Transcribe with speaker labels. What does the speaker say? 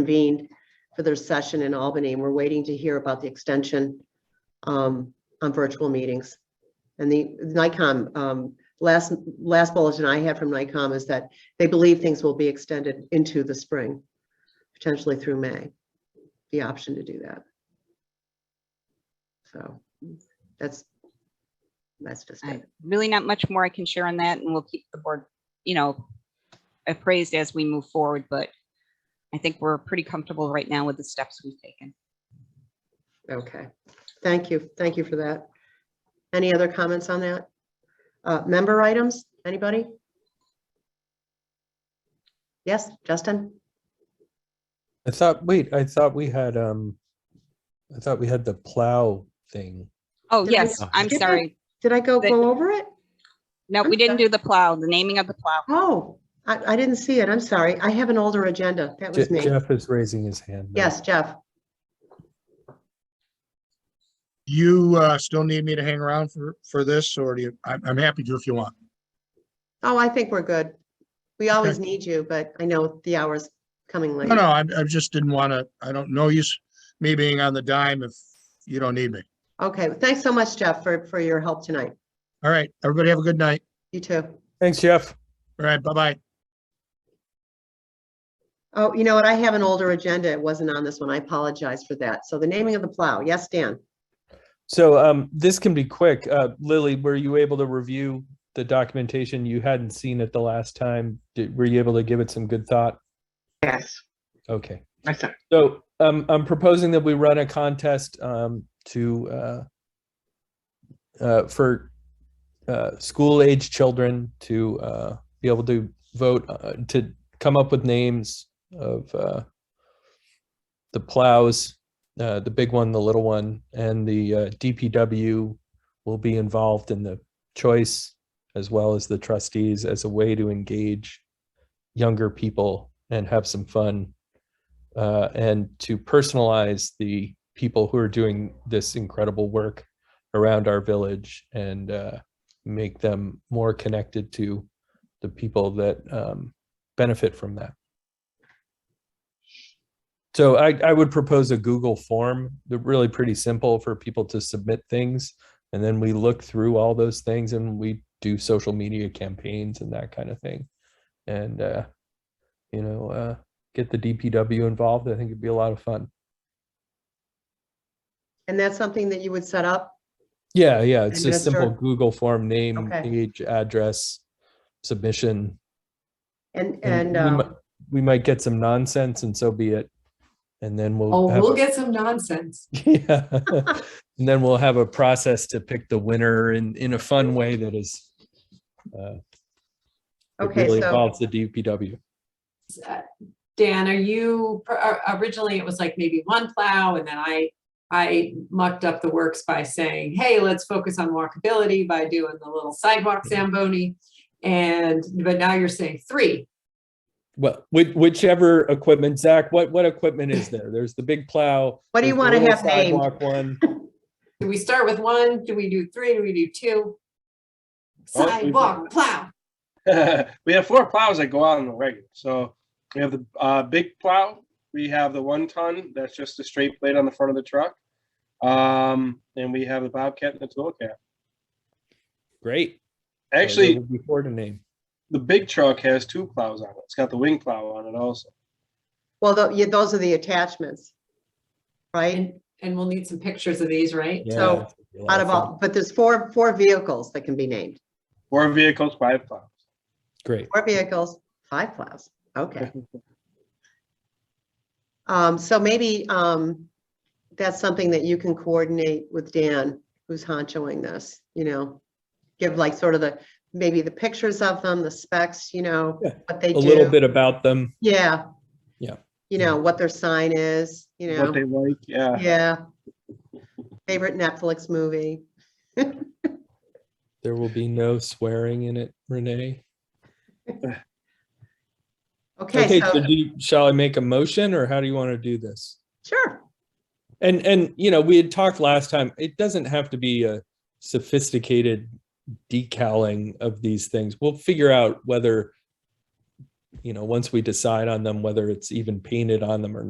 Speaker 1: convened for their session in Albany, and we're waiting to hear about the extension um, on virtual meetings. And the NICOM, um, last, last bulletin I had from NICOM is that they believe things will be extended into the spring, potentially through May, the option to do that. So that's, that's just
Speaker 2: I-
Speaker 1: it.
Speaker 2: Really not much more I can share on that and we'll keep the board, you know, appraised as we move forward, but I think we're pretty comfortable right now with the steps we've taken.
Speaker 1: Okay, thank you, thank you for that. Any other comments on that? Uh, member items, anybody? Yes, Justin?
Speaker 3: I thought, wait, I thought we had, um, I thought we had the plow thing.
Speaker 2: Oh,
Speaker 1: Did I-
Speaker 2: yes, I'm
Speaker 1: did I-
Speaker 2: sorry.
Speaker 1: Did I go,
Speaker 2: That-
Speaker 1: go over it?
Speaker 2: No, we didn't do the plow, the naming of the plow.
Speaker 1: Oh, I, I didn't see it, I'm sorry, I have an older agenda, that
Speaker 3: Je-
Speaker 1: was me.
Speaker 3: Jeff is raising his hand. now.
Speaker 1: Yes, Jeff,
Speaker 4: You uh, still need me to hang around for, for this, or do you, I'm, I'm happy to if you want.
Speaker 1: oh, I think we're good. We always need you, but I know the hour's coming late.
Speaker 4: No, no, I, I just didn't want to, I don't know you, s- me being on the dime if you don't need me.
Speaker 1: Okay, thanks so much, Jeff, for, for your help tonight.
Speaker 4: All right, everybody have a good night.
Speaker 1: You too.
Speaker 3: Thanks, Jeff.
Speaker 4: All right, bye-bye.
Speaker 1: Oh, you know what? I have an older agenda. It wasn't on this one. I apologize for that. So the naming of the plow. Yes, Dan.
Speaker 3: So, um, this can be quick. Uh, Lily, were you able to review the documentation you hadn't seen it the last time? Did, were you able to give it some good thought?
Speaker 5: Yes,
Speaker 3: Okay.
Speaker 5: I thought,
Speaker 3: So, um, I'm proposing that we run a contest, um, to, uh, uh, for, uh, school age children to, uh, be able to vote, uh, to come up with names of, uh, the plows, uh, the big one, the little one, and the, uh, DPW will be involved in the choice as well as the trustees as a way to engage younger people and have some fun uh, and to personalize the people who are doing this incredible work around our village and uh, make them more connected to the people that um, benefit from that. So I, I would propose a Google form, they're really pretty simple for people to submit things. And then we look through all those things and we do social media campaigns and that kind of thing. And, uh, you know, uh, get the DPW involved. I think it'd be a lot of fun.
Speaker 1: And that's something that you would set up?
Speaker 3: Yeah, yeah, it's
Speaker 1: And
Speaker 3: just simple
Speaker 1: register.
Speaker 3: Google form, name,
Speaker 1: Okay.
Speaker 3: age, address, submission.
Speaker 1: And,
Speaker 3: and
Speaker 1: and,
Speaker 3: we mi-
Speaker 1: uh,
Speaker 3: We might get some nonsense and so be it. And then we'll.
Speaker 6: Oh,
Speaker 3: have
Speaker 6: we'll
Speaker 3: a-
Speaker 6: get some nonsense.
Speaker 3: Yeah. And then we'll have a process to pick the winner in, in a fun way that is. uh, that
Speaker 1: Okay,
Speaker 3: really
Speaker 1: so-
Speaker 3: Involves the DPW.
Speaker 6: Uh, Dan, are you, or- or- originally it was like maybe one plow and then I, I mucked up the works by saying, hey, let's focus on walkability by doing the little sidewalk
Speaker 3: Mm-hmm.
Speaker 6: Zamboni. And, but now you're saying three.
Speaker 3: Well, which, whichever equipment, Zach, what, what equipment is there? There's the big plow.
Speaker 1: What do you
Speaker 3: there's the
Speaker 1: wanna
Speaker 3: little
Speaker 1: have named?
Speaker 3: sidewalk One.
Speaker 6: Do we start with one? Do we do three? Do we do two?
Speaker 5: Oh, we've-
Speaker 6: Sidewalk plow.
Speaker 5: we have four plows that go out on the regular. So we have the uh, big plow. We have the one ton that's just a straight blade on the front of the truck. Um, and we have the Bobcat and the tool cap.
Speaker 3: Great. Uh, that
Speaker 5: Actually,
Speaker 3: would be Before the name.
Speaker 5: the big truck has two plows on it. It's got the wing plow on it also.
Speaker 1: well, tho- yeah, those are the attachments. Right?
Speaker 6: And, and we'll need some pictures of these, right?
Speaker 1: so,
Speaker 3: Yeah, that'd be a lot
Speaker 1: Out
Speaker 3: of
Speaker 1: of
Speaker 3: fun.
Speaker 1: all, but there's four, four vehicles that can be named.
Speaker 5: Four vehicles, five plows.
Speaker 3: Great.
Speaker 1: Four vehicles, five plows. Okay. Um, so maybe, um, that's something that you can coordinate with Dan, who's honchoing this, you know? Give like sort of the, maybe the pictures of them, the specs, you know,
Speaker 3: Yeah,
Speaker 1: what they
Speaker 3: A
Speaker 1: do.
Speaker 3: little bit about them.
Speaker 1: Yeah.
Speaker 3: Yeah.
Speaker 1: You know, what their sign is, you
Speaker 5: What
Speaker 1: know,
Speaker 5: they like, yeah.
Speaker 1: yeah. Favorite Netflix movie.
Speaker 3: There will be no swearing in it, Renee.
Speaker 1: Okay,
Speaker 3: Okay, so
Speaker 1: so,
Speaker 3: do you- shall I make a motion or how do you want to do this?
Speaker 1: sure.
Speaker 3: And, and, you know, we had talked last time, it doesn't have to be a sophisticated decaling of these things. We'll figure out whether you know, once we decide on them, whether it's even painted on them or